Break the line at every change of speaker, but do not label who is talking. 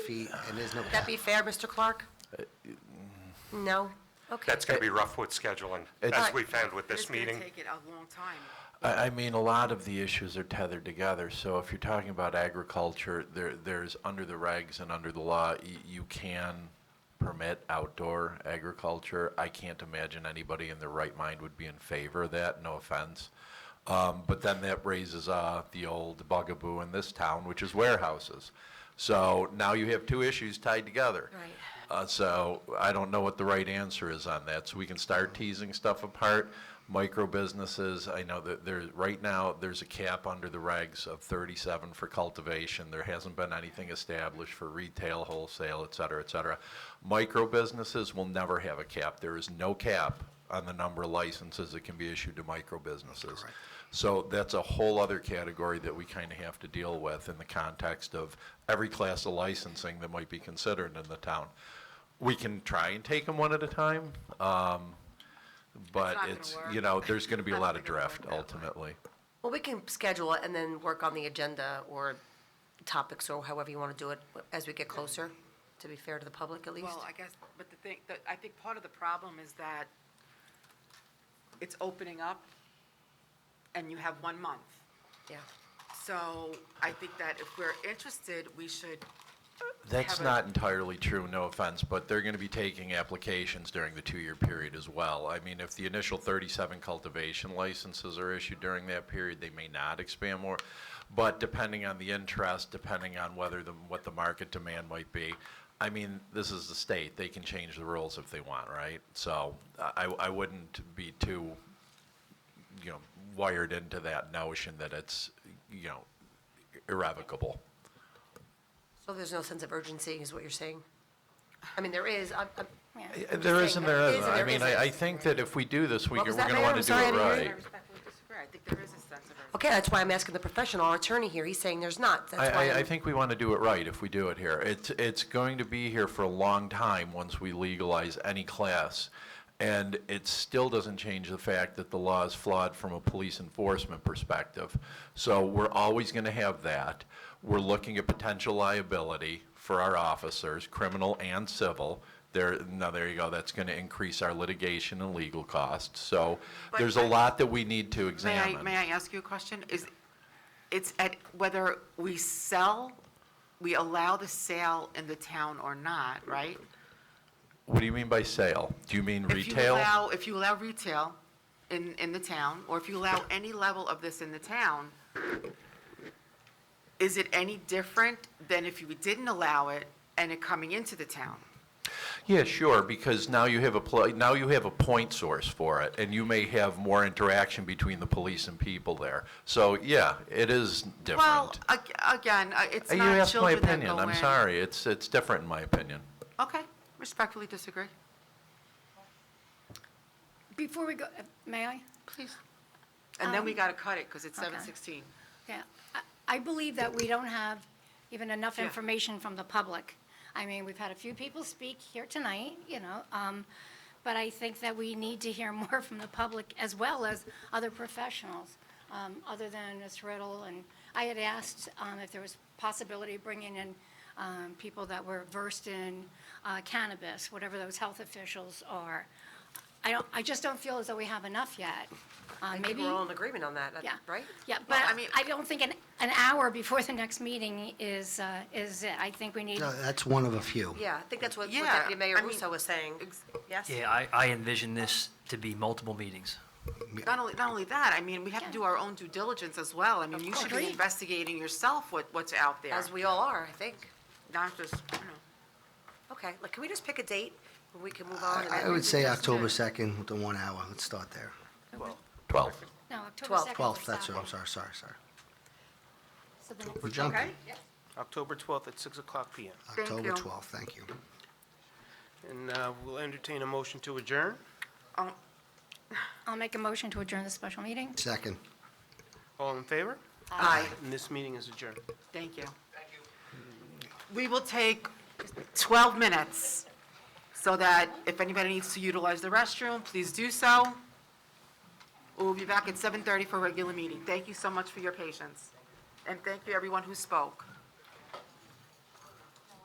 feet and there's no.
Would that be fair, Mr. Clark? No? Okay.
That's going to be rough with scheduling, as
It's-
we found with this
It's
meeting.
going to take it a long time.
I, I mean, a lot of the issues are tethered together. So if you're talking about agriculture, there, there's under the regs and under the law, y- you can permit outdoor agriculture. I can't imagine anybody in their right mind would be in favor of that, no offense. Um, but then that raises, uh, the old bugaboo in this town, which is warehouses. So now you have two issues tied together.
Right.
Uh, so I don't know what the right answer is on that. So we can start teasing stuff apart. Micro businesses, I know that there, right now, there's a cap under the regs of thirty-seven for cultivation. There hasn't been anything established for retail, wholesale, et cetera, et cetera. Micro businesses will never have a cap. There is no cap on the number of licenses that can be issued to micro businesses. So that's a whole other category that we kind of have to deal with in the context of every class of licensing that might be considered in the town. We can try and take them one at a time, um, but
not gonna
it's,
work.
you know, there's going to be a
Not
lot of
gonna work
drift
that way.
ultimately.
Well, we can schedule it and then work on the agenda or topics or however you want to do it as we get closer, to be fair to the public at least.
Well, I guess, but the thing, the- I think part of the problem is that it's opening up and you have one month.
Yeah.
So I think that if we're interested, we should,
That's
have a-
not entirely true, no offense, but they're going to be taking applications during the two-year period as well. I mean, if the initial 37 cultivation licenses are issued during that period, they may not expand more. But depending on the interest, depending on whether the, what the market demand might be, I mean, this is the state, they can change the rules if they want, right? So I, I wouldn't be too you know, wired into that notion that it's, you know, irrevocable.
So there's no sense of urgency is what you're saying? I mean, there is, I'm, I'm,
Uh, There
saying there
isn't, there
is
isn't.
and
I
there
mean, I,
isn't.
I think that if we do this, we,
What
g-
was
we're
that,
gonna
Mayor?
wanna
I'm
do
sorry, I
it
didn't hear
I
right.
you.
respectfully disagree. I think there is a sense of urgency.
okay, that's why I'm asking the professional, our attorney here, he's saying there's not,
I,
that's why.
I, I
I'm-
think we wanna do it right if we do it here. It's, it's going to be here for a long time once we legalize any class. And it still doesn't change the fact that the law is flawed from a police enforcement perspective. So we're always gonna have that. We're looking at potential liability for our officers, criminal and civil. There, now, there you go, that's gonna increase our litigation and legal costs. So
But-
there's a lot that we need to
May
examine.
I, may I ask you a question? Is, it's at whether we sell, we allow the sale in the town or not, right?
What do you mean by sale? Do you mean
If you
retail?
allow, if you allow retail in, in the town, or if you allow any level of this in the town, is it any different than if you didn't allow it and it coming into the town?
Yeah, sure, because now you have a, pl- now you have a point source for it, and you may have more interaction between the police and people there. So, yeah, it is
Well,
different.
ag- again, uh, it's
Uh, You
not
asked my
children that
opinion,
go
I'm
in.
sorry, it's, it's different in my opinion.
Okay, respectfully disagree.
Before we go, uh, may I?
Please. And
Um,
then we got to cut it because it's
Okay.
7:16.
Yeah. I- I believe that we don't have even enough
Yeah.
information from the public. I mean, we've had a few people speak here tonight, you know, um, but I think that we need to hear more from the public as well as other professionals, um, other than Ms. Riddle. And I had asked um, if there was possibility of bringing in um, people that were versed in uh, cannabis, whatever those health officials are. I don't, I just don't feel as though we have enough yet. Uh,
I think
Maybe.
we're all in agreement on that,
Yeah.
right?
Yeah, but
Well, I mean-
I don't think an, an hour before the next meeting is, uh, is it. I think we need,
No, that's one of a few.
Yeah, I think that's what what
Yeah,
Deputy Mayor
I mean,
Russo was saying.
ex-
Yes?
Yeah, I, I envision this to be multiple meetings.
Not only, not only that, I mean, we have to do our own due diligence as well. I mean, you should be
Agreed.
investigating yourself what, what's out there,
As we all are, I think.
not just, you know.
Okay, like, can we just pick a date where we can move on? and
I I
then-
would say
Just
October
to-
2nd with the one hour. Let's start there.
Twelve.
no, October 2nd.
Twelfth,
12th,
is
that's what,
Saturday.
I'm sorry, sorry, sorry.
So the next-
We're jumping.
October 12th at 6 o'clock PM.
Thank
October
you.
12th, thank you.
And uh, we'll entertain a motion to adjourn.
Um,
I'll make a motion to adjourn the special meeting.
Second.
All in favor?
Aye,
And this meeting is adjourned.
thank you. We will take 12 minutes so that if anybody needs to utilize the restroom, please do so. We'll be back at 7:30 for a regular meeting. Thank you so much for your patience. And thank you, everyone who spoke.